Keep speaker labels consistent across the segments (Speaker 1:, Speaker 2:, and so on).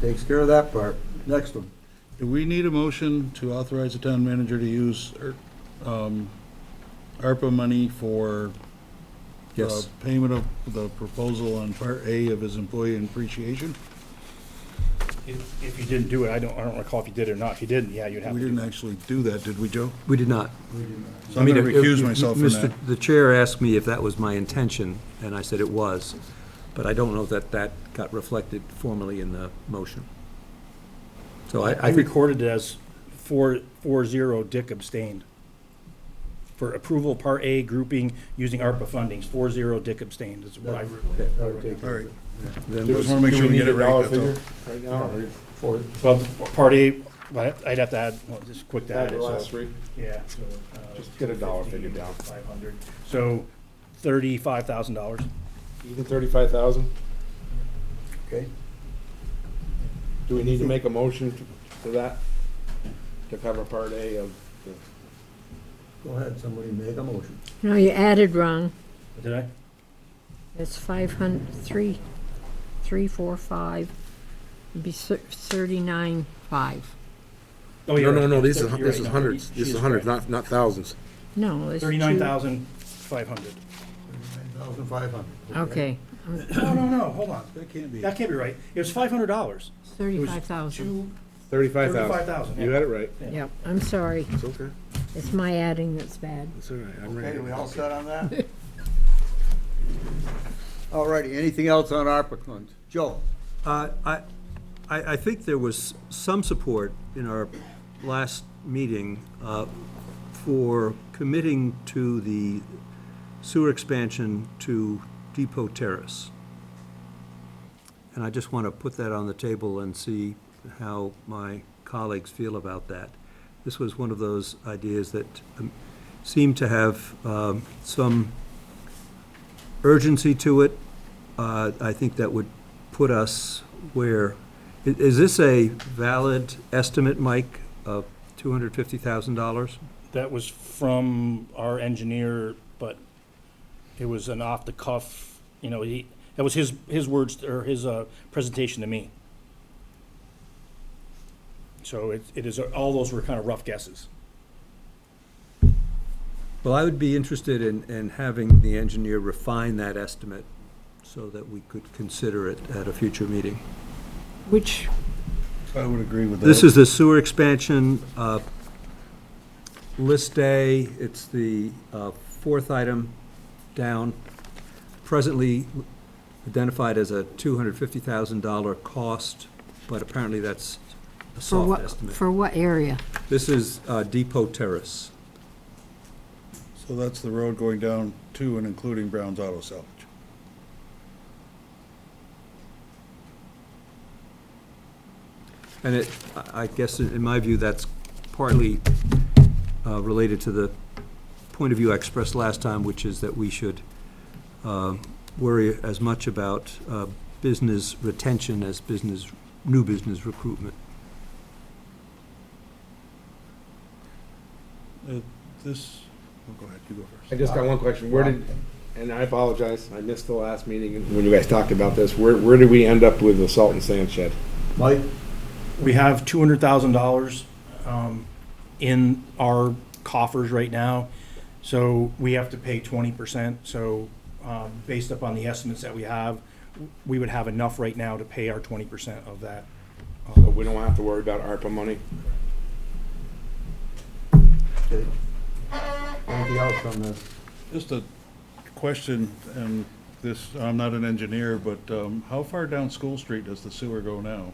Speaker 1: Takes care of that part. Next one.
Speaker 2: Do we need a motion to authorize the town manager to use er, um, ARPA money for
Speaker 1: Yes.
Speaker 2: the payment of the proposal on Part A of his employee appreciation?
Speaker 3: If if you didn't do it, I don't, I don't recall if you did or not. If you didn't, yeah, you'd have
Speaker 2: We
Speaker 3: to.
Speaker 2: didn't
Speaker 3: do it.
Speaker 2: actually do that, did we, Joe?
Speaker 4: We did not.
Speaker 2: So I'm going to
Speaker 4: I mean, if-
Speaker 2: recuse
Speaker 4: if-
Speaker 2: myself from
Speaker 4: Mr.
Speaker 2: that.
Speaker 4: The chair asked me if that was my intention, and I said it was, but I don't know that that got reflected formally in the motion. So I,
Speaker 3: I
Speaker 4: I think,
Speaker 3: recorded it as four, four zero, Dick abstained. For approval, part A grouping using ARPA fundings, four zero, Dick abstained is what I. re-
Speaker 1: That would take
Speaker 2: All
Speaker 1: care
Speaker 2: right.
Speaker 1: of
Speaker 4: then
Speaker 2: Just wanna make
Speaker 5: Do
Speaker 2: sure we
Speaker 5: need
Speaker 2: get it
Speaker 5: a dollar
Speaker 2: right, that's all.
Speaker 5: figure Right now, or for
Speaker 3: Well, part A, well, I'd have to add, well, just quick to add
Speaker 5: the
Speaker 3: it,
Speaker 5: last
Speaker 3: so,
Speaker 5: three?
Speaker 3: yeah.
Speaker 5: Just get a dollar figure down.
Speaker 3: Five hundred, so thirty-five thousand dollars.
Speaker 5: Even thirty-five thousand?
Speaker 1: Okay.
Speaker 5: Do we need to make a motion to- for that? To cover part A of the,
Speaker 1: Go ahead, somebody make a motion.
Speaker 6: No, you added wrong.
Speaker 3: Did I?
Speaker 6: It's five hundred, three, three, four, five. It'd be thirty-nine, five.
Speaker 3: Oh,
Speaker 7: No,
Speaker 3: you're
Speaker 7: no,
Speaker 3: right.
Speaker 7: no, this
Speaker 3: You're
Speaker 7: is,
Speaker 3: right.
Speaker 7: this is
Speaker 3: No,
Speaker 7: hundreds,
Speaker 3: she-
Speaker 7: this
Speaker 3: she
Speaker 7: is hundreds,
Speaker 3: correct.
Speaker 7: not, not thousands.
Speaker 6: No, it's two.
Speaker 3: Thirty-nine thousand, five hundred.
Speaker 1: Thousand five hundred.
Speaker 6: Okay,
Speaker 3: No, no, no, hold on.
Speaker 2: That can't be.
Speaker 3: That can't be right. It was five hundred dollars.
Speaker 6: thirty-five thousand.
Speaker 3: Two,
Speaker 5: thirty-five thousand?
Speaker 3: thirty-five thousand.
Speaker 5: You had it right.
Speaker 6: Yep, I'm sorry.
Speaker 7: It's okay,
Speaker 6: It's my adding that's bad.
Speaker 7: it's all right, I'm ready.
Speaker 1: set on that? All righty, anything else on ARPA funds? Joe?
Speaker 4: Uh, I, I, I think there was some support in our last meeting uh, for committing to the sewer expansion to Depot Terrace. And I just want to put that on the table and see how my colleagues feel about that. This was one of those ideas that um, seemed to have um, some urgency to it. Uh, I think that would put us where, i- is this a valid estimate, Mike, of $250,000?
Speaker 3: That was from our engineer, but it was an off-the-cuff, you know, he, that was his, his words, or his, uh, presentation to me. So it, it is, all those were kind of rough guesses.
Speaker 4: Well, I would be interested in, in having the engineer refine that estimate so that we could consider it at a future meeting.
Speaker 6: Which,
Speaker 2: I would agree with that.
Speaker 4: This is the sewer expansion, uh, list A, it's the uh, fourth item down, presently identified as a $250,000 cost, but apparently that's a
Speaker 6: for
Speaker 4: soft
Speaker 6: what,
Speaker 4: estimate.
Speaker 6: for what area?
Speaker 4: This is uh, Depot Terrace.
Speaker 2: So that's the road going down to and including Brown's Auto Salvage.
Speaker 4: And it, I I guess, in in my view, that's partly uh, related to the point of view I expressed last time, which is that we should um, worry as much about uh, business retention as business, new business recruitment.
Speaker 2: Uh, This, oh, go ahead, you go first.
Speaker 5: I just got one question. Where did, and I apologize, I missed the last meeting when you guys talked about this. Where, where did we end up with the salt and sand shed?
Speaker 1: Mike?
Speaker 3: We have two hundred thousand dollars, um, in our coffers right now, so we have to pay twenty percent, so, um, based upon the estimates that we have, we would have enough right now to pay our twenty percent of that.
Speaker 7: Oh.
Speaker 3: uh,
Speaker 5: So we don't have to worry about ARPA money?
Speaker 1: Okay. Anything else on this?
Speaker 2: Just a question, and this, I'm not an engineer, but um, how far down School Street does the sewer go now?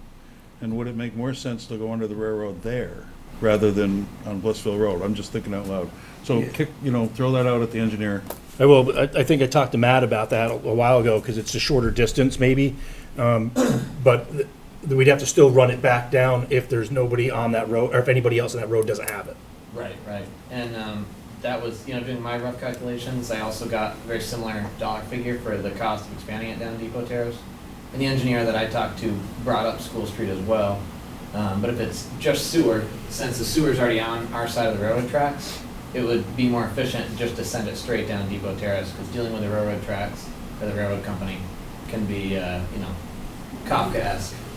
Speaker 2: And would it make more sense to go under the railroad there rather than on Blissville Road? I'm just thinking out loud. So kick, you know, throw that out at the engineer.
Speaker 3: I will, but I, I think I talked to Matt about that a a while ago, because it's a shorter distance maybe. Um, But th- we'd have to still run it back down if there's nobody on that road, or if anybody else on that road doesn't have it.
Speaker 8: Right, right. And um, that was, you know, doing my rough calculations, I also got a very similar dollar figure for the cost of expanding it down Depot Terrace. And the engineer that I talked to brought up School Street as well. Um, But if it's just sewer, since the sewer's already on our side of the railroad tracks, it would be more efficient just to send it straight down Depot Terrace, because dealing with the railroad tracks for the railroad company can be, uh, you know, Kafkaesque.